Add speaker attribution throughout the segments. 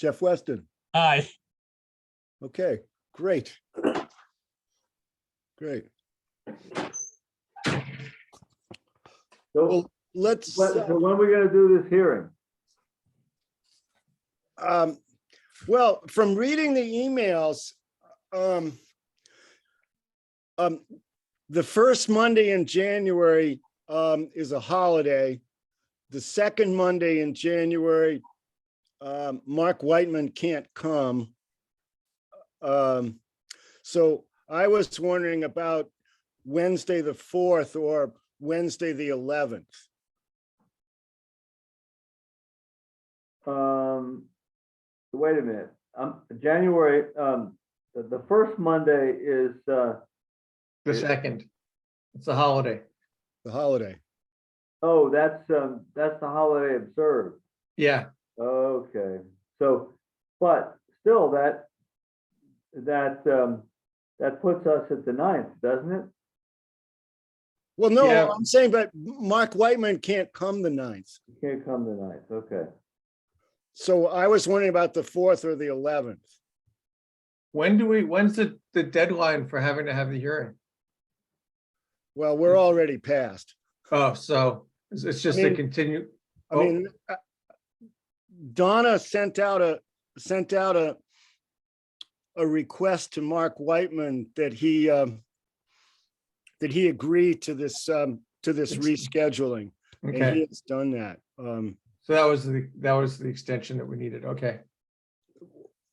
Speaker 1: Jeff Weston.
Speaker 2: Aye.
Speaker 1: Okay, great. Great.
Speaker 3: So,
Speaker 1: Well, let's,
Speaker 3: when- so when are we gonna do this hearing?
Speaker 1: um, well, from reading the emails, um, um, the first Monday in January, um, is a holiday. The second Monday in January, um, Mark Whitman can't come. Um, so I was wondering about Wednesday, the fourth or Wednesday, the eleventh.
Speaker 3: Um, wait a minute, um, January, um, the, the first Monday is, uh,
Speaker 4: The
Speaker 3: It-
Speaker 4: second. It's a holiday.
Speaker 1: The holiday.
Speaker 3: oh, that's, um, that's the holiday observed.
Speaker 4: Yeah,
Speaker 3: Okay, so, but still that, that, um, that puts us at the ninth, doesn't it?
Speaker 1: Well, no,
Speaker 4: Yeah.
Speaker 1: I'm saying, but Mark Whitman can't come the ninth.
Speaker 3: You can't come the ninth, okay.
Speaker 1: So I was wondering about the fourth or the eleventh.
Speaker 4: when do we, when's the, the deadline for having to have the hearing?
Speaker 1: Well,
Speaker 4: Mm-hmm.
Speaker 1: we're already past.
Speaker 4: Oh, so it's, it's just a
Speaker 1: mean-
Speaker 4: continue,
Speaker 1: I
Speaker 4: Oh.
Speaker 1: mean, uh, Donna sent out a, sent out a, a request to Mark Whitman that he, um, that he agree to this, um, to this rescheduling. And he
Speaker 4: okay,
Speaker 1: has done that. Um,
Speaker 4: so that was the, that was the extension that we needed, okay,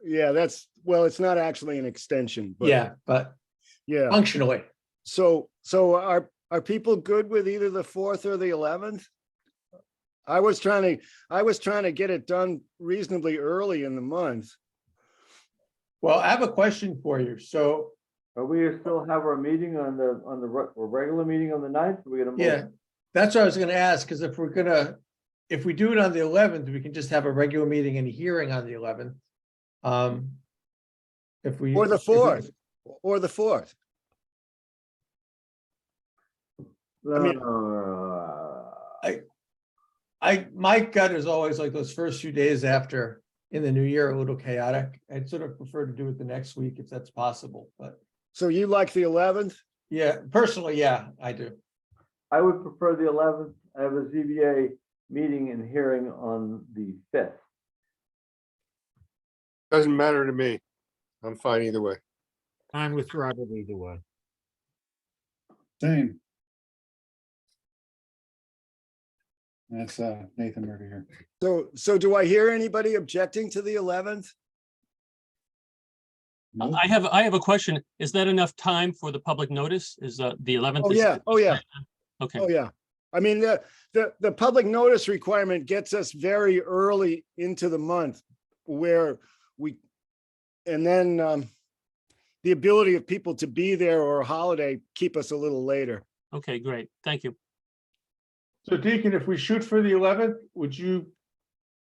Speaker 1: yeah, that's, well, it's not actually an extension, but
Speaker 4: yeah, but
Speaker 1: yeah.
Speaker 4: functionally,
Speaker 1: So, so are, are people good with either the fourth or the eleventh? I was trying to, I was trying to get it done reasonably early in the month.
Speaker 4: well, I have a question for you, so,
Speaker 3: Are we still have our meeting on the, on the, re- our regular meeting on the ninth? We're gonna. move-
Speaker 4: yeah, that's what I was gonna ask, because if we're gonna, if we do it on the eleventh, we can just have a regular meeting and a hearing on the eleventh. Um, if we.
Speaker 1: Or the
Speaker 4: if we-
Speaker 1: fourth. Or the fourth. I mean-
Speaker 3: Uh,
Speaker 4: I, my gut is always like those first few days after in the new year, a little chaotic. I'd sort of prefer to do it the next week if that's possible, but
Speaker 1: So you like the eleventh?
Speaker 4: yeah, personally, yeah, I do.
Speaker 3: I would prefer the eleventh. I have a ZBA meeting and hearing on the fifth.
Speaker 5: Doesn't matter to me. I'm fine either way.
Speaker 6: I'm with Robert either way.
Speaker 7: Same. That's uh, Nathan Murphy here.
Speaker 1: So, so do I hear anybody objecting to the eleventh? Hmm?
Speaker 7: Nope.
Speaker 2: I have, I have a question. Is that enough time for the public notice? Is uh, the 11th?
Speaker 1: Oh,
Speaker 2: is-
Speaker 1: yeah, oh, yeah,
Speaker 2: Okay,
Speaker 1: oh, yeah. I mean, the, the, the public notice requirement gets us very early into the month where we, and then, um, the ability of people to be there or a holiday keep us a little later.
Speaker 2: okay, great. Thank you.
Speaker 4: So Deacon, if we shoot for the eleventh, would you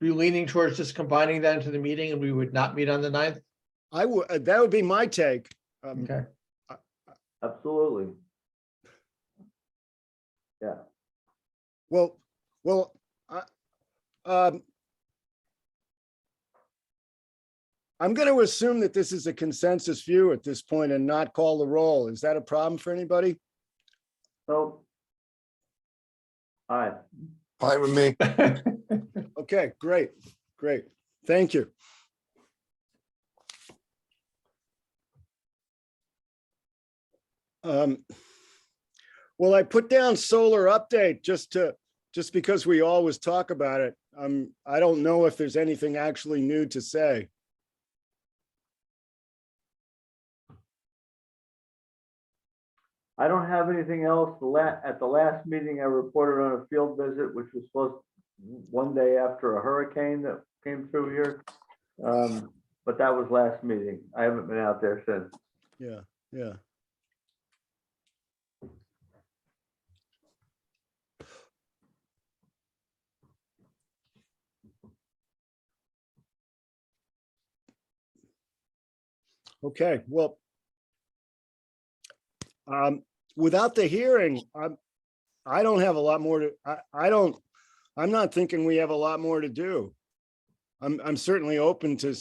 Speaker 4: be leaning towards just combining that into the meeting and we would not meet on the ninth?
Speaker 1: I would, uh, that would be my take. Um,
Speaker 4: Okay,
Speaker 3: Absolutely. Yeah,
Speaker 1: Well, well, I, um, I'm going to assume that this is a consensus view at this point and not call the roll. Is that a problem for anybody?
Speaker 3: so. Aye.
Speaker 5: Fine with me.
Speaker 1: Okay, great, great. Thank you. Um, Well, I put down solar update just to, just because we always talk about it. Um, I don't know if there's anything actually new to say.
Speaker 3: I don't have anything else. The la, at the last meeting, I reported on a field visit, which was supposed one day after a hurricane that came through here. Um, but that was last meeting. I haven't been out there since.
Speaker 1: Yeah, yeah. Okay, well. Um, without the hearing, I'm, I don't have a lot more to, I, I don't, I'm not thinking we have a lot more to do. I'm, I'm certainly open to